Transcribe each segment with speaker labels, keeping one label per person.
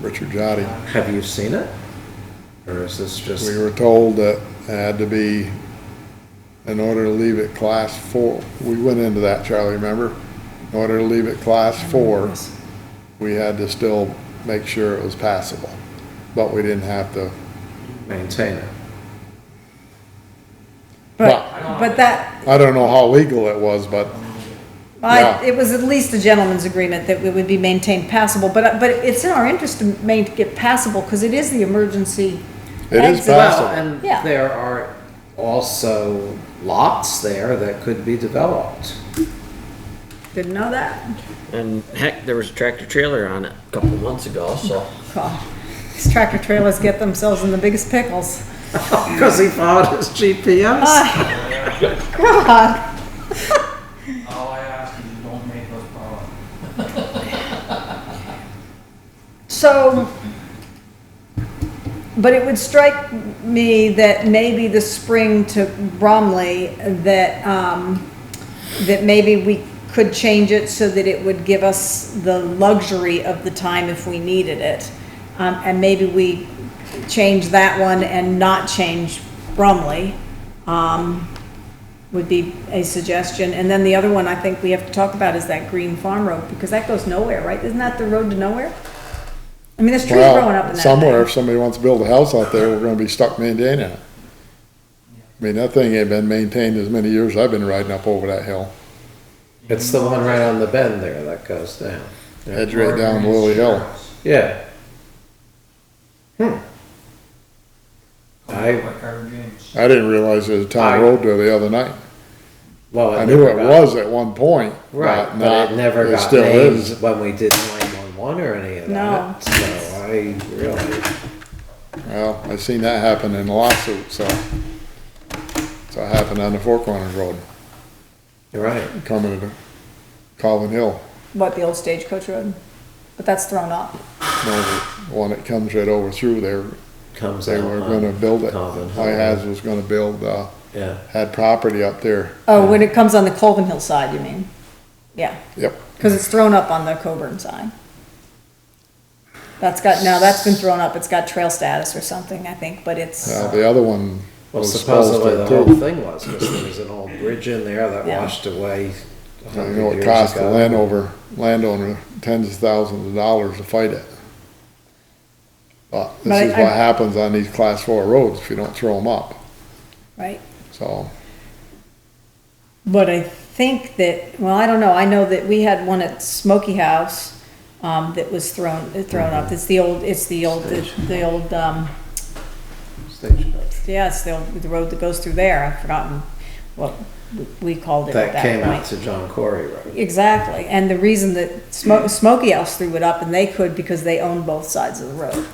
Speaker 1: Richard Jotty.
Speaker 2: Have you seen it? Or is this
Speaker 1: We
Speaker 2: just,
Speaker 1: were told that it had to be, in order to leave it class four, we went into that, Charlie, remember? In order to leave it class four, we had to still make sure it was passable, but we didn't have to.
Speaker 2: maintain it?
Speaker 3: But, but that,
Speaker 1: I don't know how legal it was, but Yeah.
Speaker 3: I, it was at least a gentleman's agreement that it would be maintained passable, but, but it's in our interest to make it passable, because it is the emergency.
Speaker 1: it is
Speaker 3: exit.
Speaker 2: Well,
Speaker 1: passable.
Speaker 2: and
Speaker 3: Yeah.
Speaker 2: there are also lots there that could be developed.
Speaker 3: Didn't know that?
Speaker 4: And heck, there was a tractor trailer on it a couple months ago, so.
Speaker 3: God, these tractor trailers get themselves in the biggest pickles.
Speaker 2: Because he followed his GPS.
Speaker 3: Ah, God,
Speaker 5: All I ask is you don't make those problems.
Speaker 3: so, but it would strike me that maybe the spring to Bromley, that, um, that maybe we could change it so that it would give us the luxury of the time if we needed it. Um, and maybe we change that one and not change Brumley, um, would be a suggestion. And then the other one I think we have to talk about is that green farm road, because that goes nowhere, right? Isn't that the road to nowhere? I mean, there's trees growing up in
Speaker 1: Well,
Speaker 3: that thing.
Speaker 1: somewhere, if somebody wants to build a house out there, we're gonna be stuck maintaining it. I mean, that thing ain't been maintained as many years I've been riding up over that hill.
Speaker 2: It's the one right on the bend there that goes down.
Speaker 1: Heads right down Lily Hill.
Speaker 2: Yeah. Hmm. I-
Speaker 5: Like Carter James.
Speaker 1: I didn't realize there was a
Speaker 2: I-
Speaker 1: town road there the other night.
Speaker 2: Well,
Speaker 1: I knew
Speaker 2: never
Speaker 1: it
Speaker 2: got-
Speaker 1: was at one point.
Speaker 2: Right,
Speaker 1: but
Speaker 2: but
Speaker 1: not-
Speaker 2: it never got
Speaker 1: still
Speaker 2: named
Speaker 1: is.
Speaker 2: when we did 911 or any of
Speaker 3: No.
Speaker 2: that. So I really,
Speaker 1: Well, I seen that happen in a lawsuit, so. So it happened on the Four Corners Road,
Speaker 2: you're right.
Speaker 1: coming to Calvin Hill,
Speaker 3: What, the old stagecoach road? But that's thrown up.
Speaker 1: you know, the one that comes right over through there.
Speaker 2: Comes
Speaker 1: They
Speaker 2: out
Speaker 1: were
Speaker 2: on
Speaker 1: gonna build it.
Speaker 2: Calvin Hill.
Speaker 1: I has was gonna build, uh,
Speaker 2: Yeah.
Speaker 1: had property up there.
Speaker 3: Oh, when it comes on the Colvin Hill side, you mean? Yeah.
Speaker 1: Yep,
Speaker 3: Because it's thrown up on the Coburn side. That's got, now that's been thrown up, it's got trail status or something, I think, but it's,
Speaker 1: now the other one
Speaker 2: Well,
Speaker 1: was supposed
Speaker 2: supposedly the
Speaker 1: to
Speaker 2: whole
Speaker 1: too.
Speaker 2: thing was, because there was an old bridge in there that
Speaker 3: Yeah.
Speaker 2: washed away. a
Speaker 1: I
Speaker 2: hundred
Speaker 1: know it
Speaker 2: years
Speaker 1: cost the
Speaker 2: ago.
Speaker 1: landowner, landowner tens of thousands of dollars to fight it. But
Speaker 3: But I-
Speaker 1: this is
Speaker 3: I-
Speaker 1: what happens on these class four roads if you don't throw them up,
Speaker 3: right?
Speaker 1: so.
Speaker 3: But I think that, well, I don't know, I know that we had one at Smoky House, um, that was thrown, thrown up, it's the old, it's the old, the old, um,
Speaker 2: Stagecoach.
Speaker 3: yeah, it's the, old- the road that goes through there, I've forgotten what we called it at
Speaker 2: That
Speaker 3: that
Speaker 2: came
Speaker 3: point.
Speaker 2: out to John Corey Road.
Speaker 3: Exactly, and the reason that Smo- Smoky House threw it up, and they could because they own both sides of the road.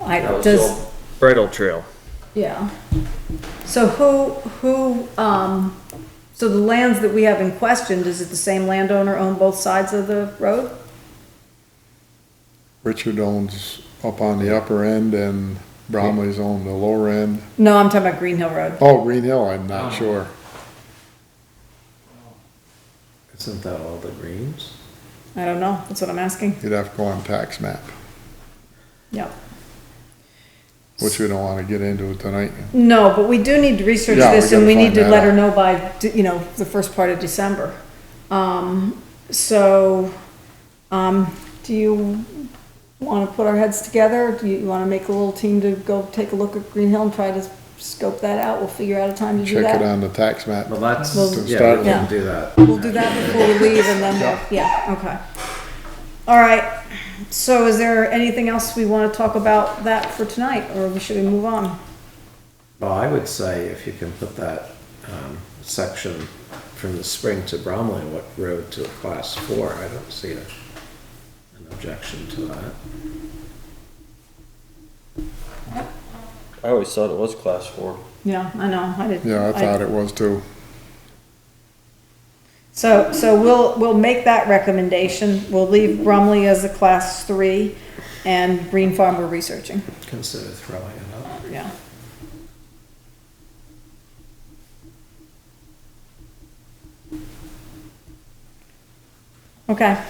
Speaker 3: I,
Speaker 4: that was the
Speaker 3: does,
Speaker 4: old Bridle trail.
Speaker 3: yeah. So who, who, um, so the lands that we have in question, does it the same landowner own both sides of the road?
Speaker 1: Richard owns up on the upper end and Bromley's on the lower end.
Speaker 3: No, I'm talking about Green Hill Road.
Speaker 1: Oh, Green Hill, I'm not
Speaker 2: Uh-huh.
Speaker 1: sure.
Speaker 2: Isn't that all the greens?
Speaker 3: I don't know, that's what I'm asking,
Speaker 1: You'd have to go on tax map,
Speaker 3: yep.
Speaker 1: which we don't wanna get into tonight.
Speaker 3: No, but we do need to research
Speaker 1: Yeah, we
Speaker 3: this, and
Speaker 1: gotta
Speaker 3: we need
Speaker 1: find
Speaker 3: to
Speaker 1: that
Speaker 3: let her
Speaker 1: out.
Speaker 3: know by, you know, the first part of December. Um, so, um, do you wanna put our heads together? Do you wanna make a little team to go take a look at Green Hill and try to scope that out? We'll figure out a time to do
Speaker 1: Check it
Speaker 3: that.
Speaker 1: on the tax map.
Speaker 2: Well, that's,
Speaker 3: Well-
Speaker 2: yeah, we
Speaker 3: Yeah.
Speaker 2: can do that.
Speaker 3: We'll do that before we leave, and then, we'll yeah, okay. All right, so is there anything else we wanna talk about that for tonight, or should we move on?
Speaker 2: Well, I would say if you can put that um, section from the spring to Bromley, what road to a class four, I don't see a- an objection to that.
Speaker 4: I always thought it was class four.
Speaker 3: Yeah, I know, I didn't.
Speaker 1: Yeah, I thought it was too.
Speaker 3: So, so we'll, we'll make that recommendation. We'll leave Brumley as a class three and Green Farm we're researching,
Speaker 2: Consider throwing it up.
Speaker 3: yeah. Okay,